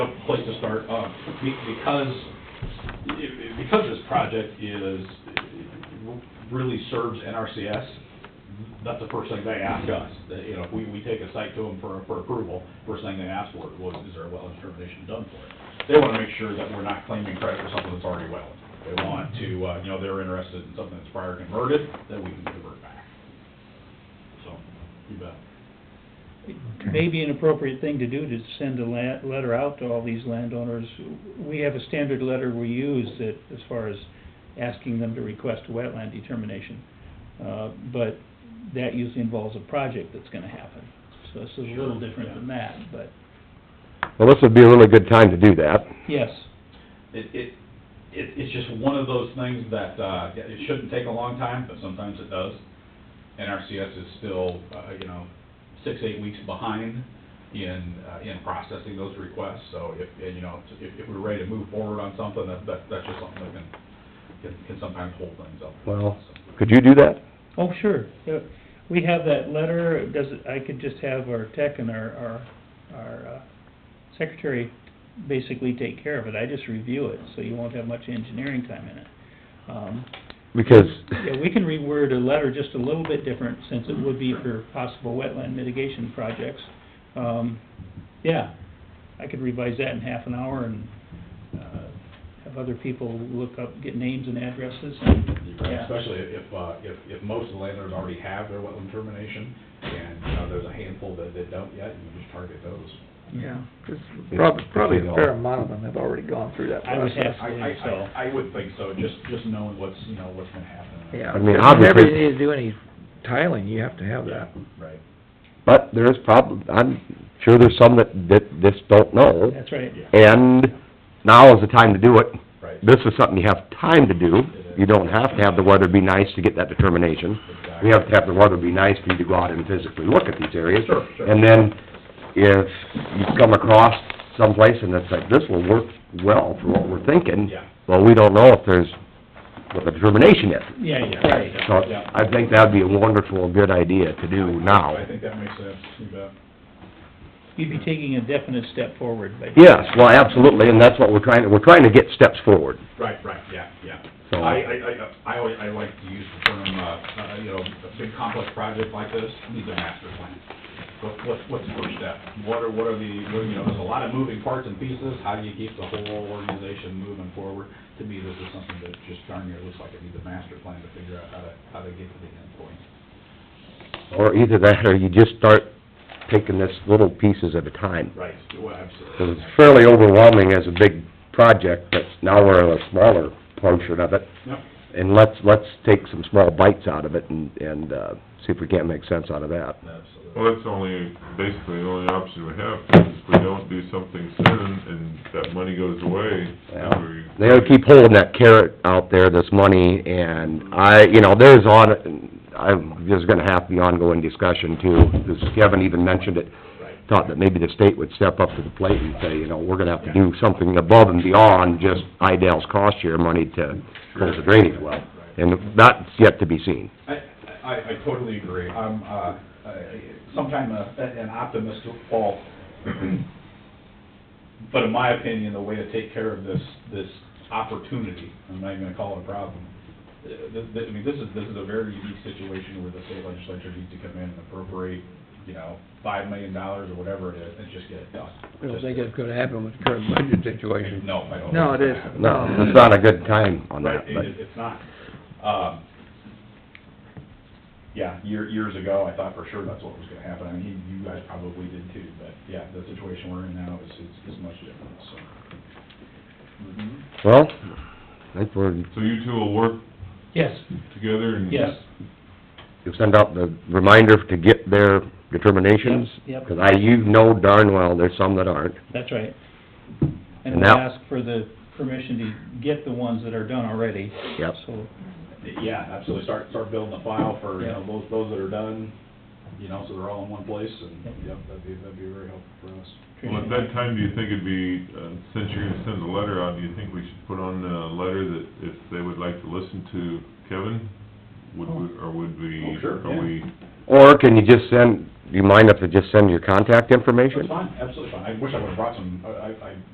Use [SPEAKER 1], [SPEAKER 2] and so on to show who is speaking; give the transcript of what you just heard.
[SPEAKER 1] place to start, uh, be- because, because this project is, really serves NRCS, that's the first thing they ask us. That, You know, if we, we take a site to them for, for approval, first thing they ask for was, is there a wetlands determination done for it? They wanna make sure that we're not claiming credit for something that's already wetland. They want to, uh, you know, they're interested in something that's prior converted, that we can convert back. So, you bet.
[SPEAKER 2] Maybe an appropriate thing to do to send a la- letter out to all these landowners. We have a standard letter we use that, as far as asking them to request a wetland determination. Uh, but that usually involves a project that's gonna happen. So this is a little
[SPEAKER 1] Sure,
[SPEAKER 2] different
[SPEAKER 1] yeah.
[SPEAKER 2] than that, but,
[SPEAKER 3] Well, this would be a really good time to do that.
[SPEAKER 2] yes,
[SPEAKER 1] It, it, it, it's just one of those things that, uh, yeah, it shouldn't take a long time, but sometimes it does. NRCS is still, uh, you know, six, eight weeks behind in, uh, in processing those requests. So if, and, you know, if, if we're ready to move forward on something, that, that, that's just something that can, can, can sometimes hold things up.
[SPEAKER 3] Well, could you do that?
[SPEAKER 2] oh, sure. Yeah. We have that letter, It does, I could just have our tech and our, our, our uh, secretary basically take care of it. I just review it, so you won't have much engineering time in it. Um,
[SPEAKER 3] Because,
[SPEAKER 2] Yeah, we can reword a letter just a little bit different, since it would be for possible wetland mitigation projects. Um, yeah, I could revise that in half an hour and, uh, have other people look up, get names and addresses. Yeah.
[SPEAKER 1] Especially if, uh, if, if most of the landowners already have their wetland termination, and, you know, there's a handful that, that don't yet, you just target those.
[SPEAKER 4] Yeah, 'cause probably, probably a fair amount of them have already gone through that
[SPEAKER 2] I would
[SPEAKER 4] process.
[SPEAKER 2] have-
[SPEAKER 1] I, I, I- I would think so, just, just knowing what's, you know, what's gonna happen.
[SPEAKER 4] Yeah,
[SPEAKER 3] I mean,
[SPEAKER 4] whenever
[SPEAKER 3] obviously-
[SPEAKER 4] you need to do any tiling, you have to have that.
[SPEAKER 1] Right.
[SPEAKER 3] but there is prob, I'm sure there's some that, that just don't know.
[SPEAKER 2] That's right.
[SPEAKER 1] Yeah.
[SPEAKER 3] And now is the time to do it.
[SPEAKER 1] Right.
[SPEAKER 3] This is something you have time to do. You don't have to have the weather be nice to get that determination.
[SPEAKER 1] Exactly.
[SPEAKER 3] You have to have the weather be nice for you to go out and physically look at these areas.
[SPEAKER 1] Sure, sure.
[SPEAKER 3] And then if you come across someplace and it's like, this will work well for what we're thinking.
[SPEAKER 1] Yeah.
[SPEAKER 3] Well, we don't know if there's, what the determination is.
[SPEAKER 2] Yeah, yeah,
[SPEAKER 1] Yeah.
[SPEAKER 2] right.
[SPEAKER 3] So I think that'd be a wonderful, good idea to do now.
[SPEAKER 1] I think that makes sense, you bet.
[SPEAKER 2] You'd be taking a definite step forward by.
[SPEAKER 3] Yes, well, absolutely, and that's what we're trying, to we're trying to get steps forward.
[SPEAKER 1] Right, right, yeah, yeah. I,
[SPEAKER 3] So-
[SPEAKER 1] I, I, I always, I like to use the term, uh, uh, you know, a big complex project like this needs a master plan. What, what, what's the first step? What are, what are the, what- you know, there's a lot of moving parts and pieces, how do you keep the whole organization moving forward? To me, this is something that just darn near looks like it needs a master plan to figure out how to, how to get to the end point.
[SPEAKER 3] Or either that, or you just start taking this little pieces at a time.
[SPEAKER 1] Right, well, absolutely.
[SPEAKER 3] 'Cause it's fairly overwhelming as a big project, but now we're in a smaller portion of it.
[SPEAKER 1] Yep.
[SPEAKER 3] And let's, let's take some small bites out of it and, and, uh, see if we can't make sense out of that.
[SPEAKER 1] Absolutely.
[SPEAKER 5] Well, that's only, basically the only option we have, because if we don't do something soon and that money goes away,
[SPEAKER 3] Yeah.
[SPEAKER 5] then we...
[SPEAKER 3] They gotta keep holding that carrot out there, this money, and I, you know, there's on, I'm, there's gonna have to be ongoing discussion too. This, Kevin even mentioned it,
[SPEAKER 1] Right.
[SPEAKER 3] thought that maybe the state would step up to the plate and say, you know, we're gonna have to do something above and beyond just Idell's cost share money to close the drainage well. And that's yet to be seen.
[SPEAKER 1] I, I, I totally agree. I'm, uh, I- sometime a- an optimist at fault. But in my opinion, the way to take care of this, this opportunity, I'm not even gonna call it a problem. uh, th- th- I mean, this is, this is a very unique situation where the state legislature needs to come in and appropriate, you know, five million dollars or whatever it is, and just get it done.
[SPEAKER 4] I don't think it's gonna happen with the current budget situation.
[SPEAKER 1] No, I don't.
[SPEAKER 4] No,
[SPEAKER 1] think
[SPEAKER 4] it
[SPEAKER 1] it's gonna happen.
[SPEAKER 4] isn't.
[SPEAKER 3] No, it's not a good time on
[SPEAKER 1] Right,
[SPEAKER 3] that,
[SPEAKER 1] it-
[SPEAKER 3] but,
[SPEAKER 1] it- it's not. Um, Yeah, year, years ago, I thought for sure that's what was gonna happen, I mean, you guys probably did too, but yeah, the situation we're in now is, is, is much different, so.
[SPEAKER 3] well, I think we're,
[SPEAKER 5] So you two will work
[SPEAKER 2] Yes,
[SPEAKER 5] together and...
[SPEAKER 2] yes,
[SPEAKER 3] you'll send out the reminder to get their determinations?
[SPEAKER 2] Yep, yep.
[SPEAKER 3] Because I, you know darn well there's some that aren't.
[SPEAKER 2] that's right. And
[SPEAKER 3] And
[SPEAKER 2] we'll
[SPEAKER 3] now-
[SPEAKER 2] ask for the permission to get the ones that are done already.
[SPEAKER 3] Yep.
[SPEAKER 2] So,
[SPEAKER 1] Yeah, absolutely, start, start building a file for, you know, those, those that are done, you know, so they're all in one place, and, yep, that'd be, that'd be very helpful for us.
[SPEAKER 5] Well, at that time, do you think it'd be, uh, since you're gonna send the letter out, do you think we should put on the letter that if they would like to listen to Kevin? Would we, or would we,
[SPEAKER 1] Oh, sure, yeah.
[SPEAKER 5] are we,
[SPEAKER 3] Or can you just send, do you mind if I just send your contact information?
[SPEAKER 1] That's fine, absolutely fine, I wish I would've brought some, I, I- I